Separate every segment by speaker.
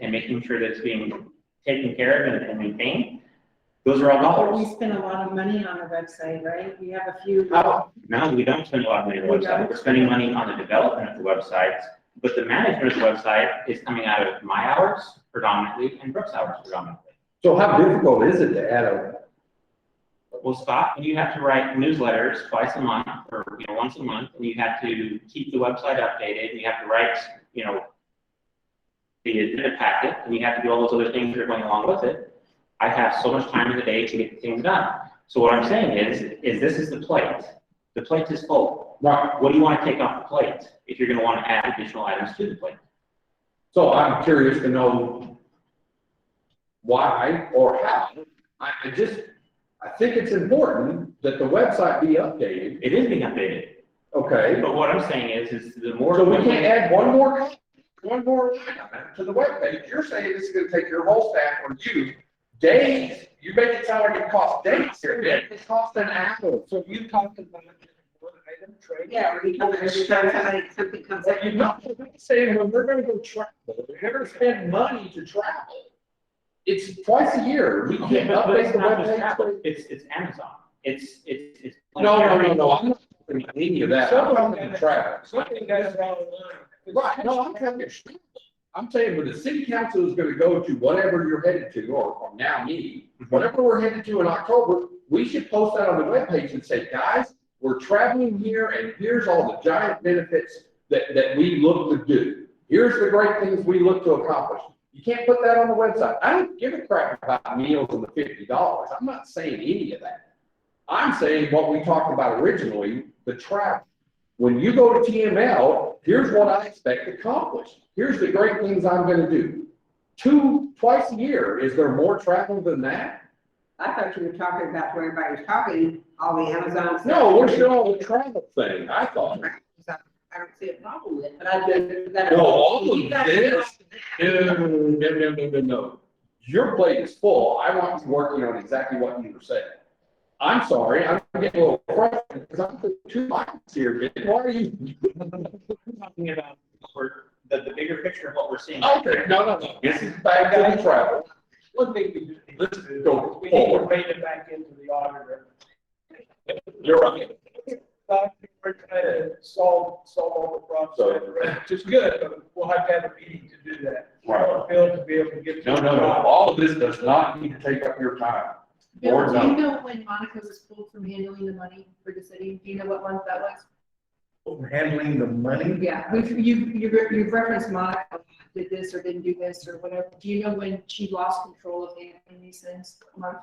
Speaker 1: and making sure that it's being taken care of and- and maintained, those are all
Speaker 2: But we
Speaker 1: dollars.
Speaker 2: spend a lot of money on our website, right? We have a few.
Speaker 1: Now, now we don't spend a lot of money on the website, we're spending money on the development of the website, but the management of the website is coming out of my hours predominantly and Brooks' hours predominantly.
Speaker 3: So how difficult is it to add a,
Speaker 1: Well, Scott, when you have to write newsletters twice a month or, you know, once a month, and you have to keep the website updated, and you have to write, you know, the agenda packet, and you have to do all those other things that are going along with it, I have so much time in the day to get things done. So what I'm saying is, is this is the plate. The plate is full.
Speaker 3: right,
Speaker 1: What do you want to take off the plate if you're going to want to add additional items to the plate?
Speaker 3: so I'm curious to know why or how. I, I just, I think it's important that the website be updated,
Speaker 1: It is being updated,
Speaker 3: okay?
Speaker 1: but what I'm saying is, is the more.
Speaker 3: So we can't add one more, one more line item to the webpage. You're saying this is gonna take your whole staff or you days, you make it sound like it costs days here, Nick. It costs an hour. So you talked about one item trade.
Speaker 2: Yeah, we come every time somebody- something comes up.
Speaker 3: But you're not you're not saying, well, we're gonna go travel, we're gonna spend money to travel. It's twice a year, we
Speaker 1: Okay,
Speaker 3: can't
Speaker 1: but but
Speaker 3: update
Speaker 1: it's
Speaker 3: the
Speaker 1: not just Apple,
Speaker 3: webpage.
Speaker 1: it's, it's Amazon, it's, it's, it's.
Speaker 3: No, no, no, no, I'm not saying any of that, I'm
Speaker 4: Some of
Speaker 3: talking
Speaker 4: them-
Speaker 3: to travel.
Speaker 4: Something goes wrong.
Speaker 3: Right, no, I'm trying to, I'm saying when the city council is gonna go to whatever you're headed to, or, or now me, whatever we're headed to in October, we should post that on the webpage and say, guys, we're traveling here and here's all the giant benefits that, that we look to do. Here's the great things we look to accomplish. You can't put that on the website. I don't give a crap about meals and the fifty dollars. I'm not saying any of that. I'm saying what we talked about originally, the travel. When you go to TML, here's what I expect to accomplish. Here's the great things I'm gonna do. Two, twice a year, is there more travel than that?
Speaker 5: I thought you were talking about where everybody's talking, all the Amazon. stuff.
Speaker 3: No, we're still on the travel thing, I thought.
Speaker 5: I don't see a problem with it, but I do. that-
Speaker 3: No, all
Speaker 5: You
Speaker 3: of
Speaker 5: guys-
Speaker 3: this, no, no, no, no, no, no. Your plate is full. I want you working on exactly what you were saying. I'm sorry, I'm getting a little frustrated because I'm putting two miles here, man. Why are you?
Speaker 1: Talking about, we're, the, the bigger picture of what we're seeing.
Speaker 3: Okay, no, no, no. This is back to the travel.
Speaker 4: One thing we do.
Speaker 3: Let's go
Speaker 4: We need to
Speaker 3: forward.
Speaker 4: bring it back into the auditor.
Speaker 3: You're right.
Speaker 4: Not that We're trying to solve, solve all the problems, which is good, but we'll have to have a meeting to do that.
Speaker 3: Right.
Speaker 4: Bill to be able to get.
Speaker 3: No, no, no. All of this does not need to take up your time.
Speaker 6: Bill,
Speaker 3: Board
Speaker 6: do you
Speaker 3: member.
Speaker 6: know when Monica was pulled from handling the money for the city? Do you know what month that was?
Speaker 4: Handling the money.
Speaker 6: Yeah, we've, you've, you've re- you've referenced Monica did this or didn't do this or whatever. Do you know when she lost control of handling these things? Month?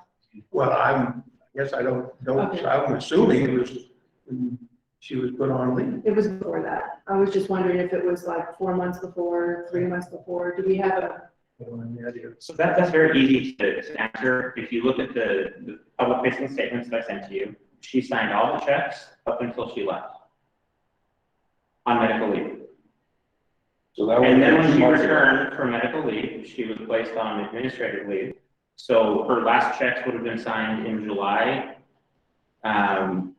Speaker 7: Well, I'm, I guess I don't, don't,
Speaker 6: Okay.
Speaker 7: I'm assuming it was, when she was put on leave.
Speaker 6: It was before that. I was just wondering if it was like four months before, three months before. Do we have a,
Speaker 7: I don't have any idea.
Speaker 1: So that, that's very easy to to answer. If you look at the, the public facing statements that I sent to you, she signed all the checks up until she left. On medical leave.
Speaker 3: So that
Speaker 1: And then when she
Speaker 3: was-
Speaker 1: returned from medical leave, she was placed on administrative leave. So her last checks would have been signed in July, um,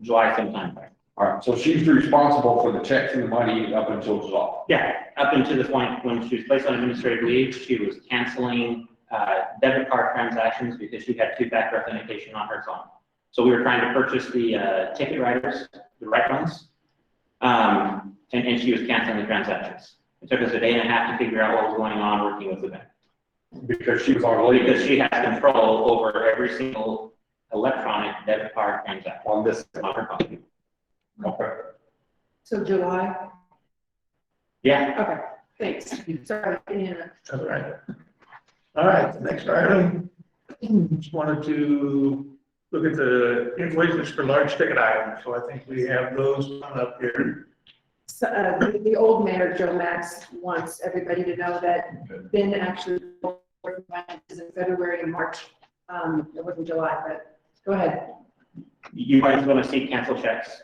Speaker 1: July sometime.
Speaker 3: All right, so she's responsible for the checks and the money up until July.
Speaker 1: Yeah, up until the point when she was placed on administrative leave, she was canceling uh, debit card transactions because she had two-factor authentication on her phone. So we were trying to purchase the uh, ticket writers, the right ones, um, and, and she was canceling the transactions. It took us a day and a half to figure out what was going on working with the bank.
Speaker 3: Because she was on
Speaker 1: Because
Speaker 3: leave
Speaker 1: she has control over every single electronic debit card transaction
Speaker 3: on this.
Speaker 1: on her phone.
Speaker 3: Okay.
Speaker 6: so July?
Speaker 1: Yeah,
Speaker 6: Okay, thanks. Sorry, Anna.
Speaker 7: All right. All right, the next item, just wanted to look at the invoices for large ticket items. So I think we have those on up here.
Speaker 6: So, uh, the- the old mayor, Joe Max, wants everybody to know that Ben actually is in February and March. Um, it wasn't July, but go ahead.
Speaker 1: you guys want to see cancel checks?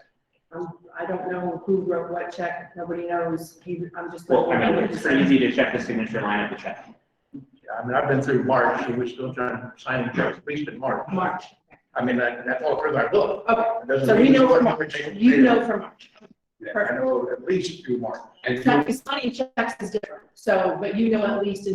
Speaker 6: Um, I don't know who wrote what check. Nobody knows. He, I'm just.
Speaker 1: Well, I mean, it's pretty easy to check the signature line of the check.
Speaker 7: Yeah, I mean, I've been through March, and we're still trying to sign the checks, at least in March.
Speaker 6: March.
Speaker 7: I mean, that- that's all through our book.
Speaker 6: Okay,
Speaker 7: It doesn't
Speaker 6: so we
Speaker 7: mean-
Speaker 6: know from March. You know from March.
Speaker 4: I know at least two more.
Speaker 3: And
Speaker 6: It's not- it's not in checks is different, so, but you know at least in